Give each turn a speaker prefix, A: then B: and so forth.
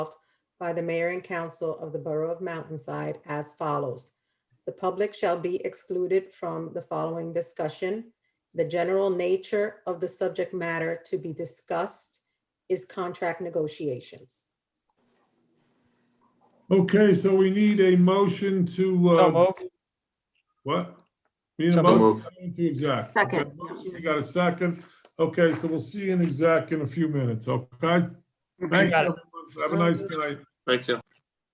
A: by the mayor and council of the Borough of Mountainside as follows. The public shall be excluded from the following discussion. The general nature of the subject matter to be discussed is contract negotiations.
B: Okay, so we need a motion to,
C: So
B: uh,
C: moved.
B: what? We Need a
C: So
B: motion
D: moved.
B: to go into exec.
E: Second.
B: Okay, motion, We got a second. Okay, so we'll see you in exec in a few minutes, okay? Thanks.
C: got
B: everyone. Have a nice night.
D: Thank you.